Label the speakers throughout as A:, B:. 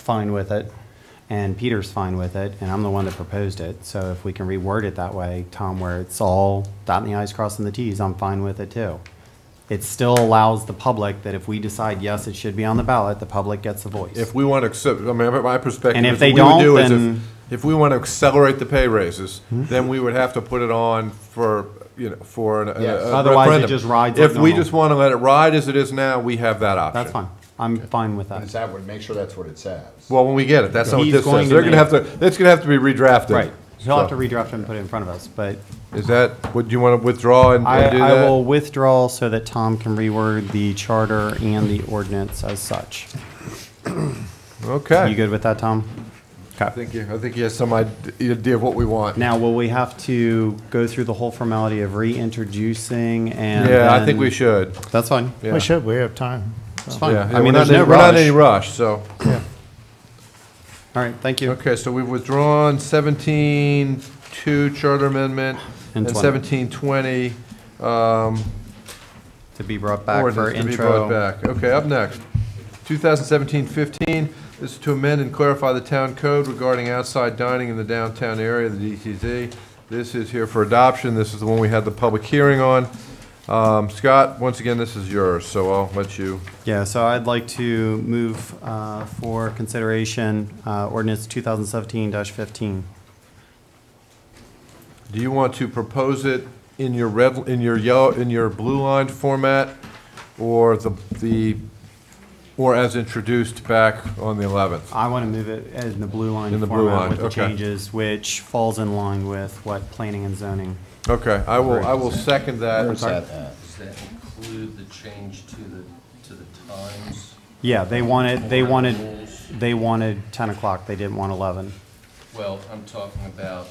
A: fine with it, and Peter's fine with it, and I'm the one that proposed it. So if we can reword it that way, Tom, where it's all dotting the i's, crossing the t's, I'm fine with it too. It still allows the public that if we decide, yes, it should be on the ballot, the public gets a voice.
B: If we want to accept, I mean, my perspective.
A: And if
B: is
A: they
B: what we would
A: don't,
B: do is if-
A: then- Hmm?
B: If we want to accelerate the pay raises, then we would have to put it on for, you know, for an- a a
A: Yes.
B: referendum.
A: Otherwise, it just rides like
B: If we
A: normal.
B: just want to let it ride as it is now, we have that option.
A: That's fine. I'm fine with
C: And is
A: that.
C: that what, make sure that's what it says?
B: Well, when we get it, that's not what
A: He's
B: this
A: going
B: says.
A: to
B: They're going to
A: make-
B: have to, it's going to have to be redrafted.
A: Right. He'll have to
B: So,
A: redraft and put it in front of us, but
B: Is that, would you want to withdraw and
A: I,
B: and do that?
A: I will withdraw so that Tom can reword the charter and the ordinance as such. You
B: Okay.
A: good with that, Tom?
B: I think, you- I think he has some id- idea of what we want.
A: Now, will we have to go through the whole formality of reintroducing and?
B: Yeah, I
A: then-
B: think we should.
A: That's fine.
B: Yeah.
D: We should, we have time.
A: It's fine.
B: Yeah.
A: I
B: We're
A: mean,
B: not
A: there's
B: in-
A: no
B: We're not in any
A: rush.
B: rush, so.
A: All right, thank you.
B: Okay, so we've withdrawn seventeen two charter amendment
A: And
B: and
A: 20.
B: seventeen twenty. um,
A: To be brought back for
B: Ordinance to be brought
A: intro.
B: back. Okay, up next, 2017-15, this is to amend and clarify the town code regarding outside dining in the downtown area, the DTZ. This is here for adoption. This is the one we had the public hearing on. Um, Scott, once again, this is yours, so I'll let you.
A: Yeah, so I'd like to move uh, for consideration uh, ordinance 2017-15.
B: Do you want to propose it in your red, in your yellow, in your blue line format, or the, the, or as introduced back on the 11th?
A: I want to move it in the blue line
B: In the blue
A: format
B: line,
A: with the
B: okay.
A: changes, which falls in line with what planning and zoning.
B: Okay, I will, I will second that.
C: Where's that at?
E: Does that include the change to the, to the times?
A: Yeah, they wanted, they
E: Or
A: wanted,
E: rules?
A: they wanted 10 o'clock, they didn't want 11.
E: Well, I'm talking about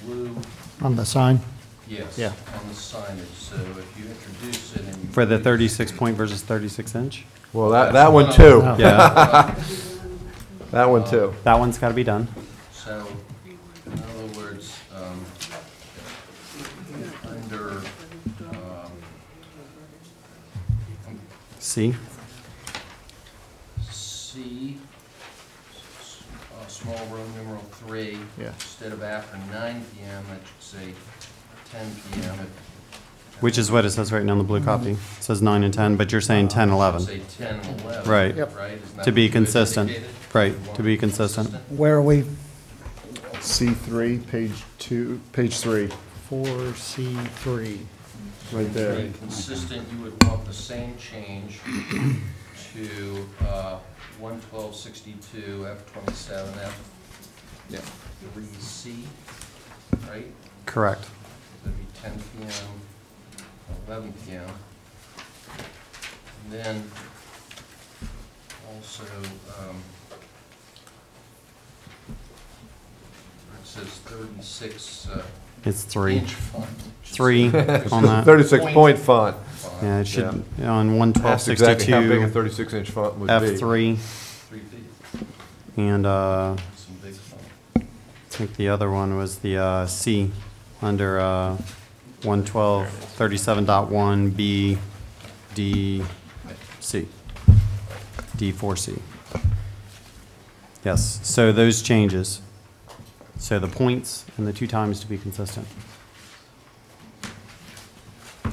E: the blue,
D: On the sign?
E: yes,
D: Yeah.
E: on the signage, so if you introduce it and. you-
A: For the 36-point versus 36-inch?
B: Well, that, that one too.
D: No.
A: Yeah.
B: That one too.
A: That one's got to be done.
E: So, in other words, um, under, um,
A: See?
E: C, s- uh, small room numeral three.
D: Yeah.
E: Instead of after nine PM, I should say ten PM. It-
A: Which is what it says right now on the blue copy. It says nine and 10, but you're saying 10,
E: Should
A: 11.
E: Say ten and eleven.
A: Right. Yep.
E: Right? Isn't that
A: To be
E: what you had
A: consistent.
E: indicated?
A: Right,
E: You
A: to
E: want
A: be consistent.
D: Where are we?
C: C three, page two, page three,
D: Four C three.
C: right
E: To be consistent, you would want the same change to uh, one twelve sixty-two, F twenty-seven, F
C: Yeah.
E: three C, right?
A: Correct.
E: That'd be ten PM, eleven PM. And Then also, um, where it says thirty-six uh,
A: It's three.
E: inch font. it should
A: Three
E: say
A: on that.
B: Thirty-six point font.
E: font,
A: Yeah, it should, on
B: That's exactly how big a
A: 11262,
B: thirty-six inch font would be.
A: F3,
E: Three feet,
A: and uh, I
E: some big font.
A: think the other one was the uh, C, under uh, 11237.1, B, D, C. D4C. Yes, so those changes. So the points and the two times to be consistent.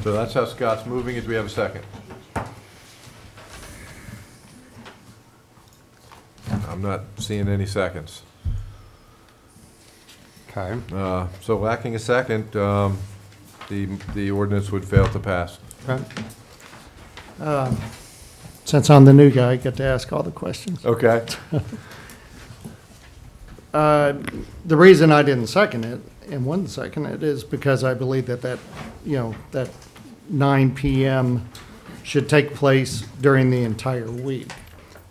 B: So that's how Scott's moving it. Do we have a second? I'm not seeing any seconds.
A: Okay.
B: Uh, So lacking a second, um, the, the ordinance would fail to pass.
D: Since I'm the new guy, I get to ask all the questions.
B: Okay.
D: Uh, The reason I didn't second it, and wouldn't second it, is because I believe that that, you know, that nine PM should take place during the entire week.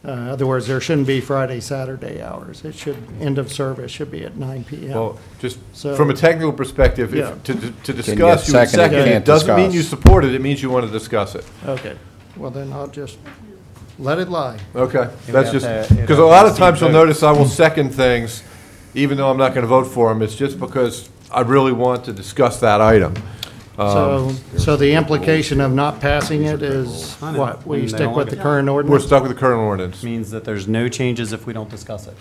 D: Uh, Otherwise, there shouldn't be Friday, Saturday hours. It should, end of service should be at nine PM.
B: Well, just
D: So-
B: from a technical perspective,
D: Yeah.
B: if- to, to
C: get
B: discuss, you would
C: second, you
B: second it.
C: can't
B: Doesn't mean
C: discuss.
B: you support it, it means you want to discuss it.
D: Okay, well then I'll just let it lie.
B: Okay,
A: we
B: that's
A: have
B: just,
A: to- it'd
B: because a lot of
A: have to be
B: times you'll
A: voted.
B: notice I will second things, even though I'm not going to vote for them, it's just because I really want to discuss that item.
D: So, so the implication of not passing it is
A: I know.
D: what? We
A: And they
D: stick
A: don't
D: with
A: like
D: the
A: it.
D: current
B: We're
D: ordinance?
B: stuck with the current ordinance.
A: Means that there's no changes if we don't discuss it.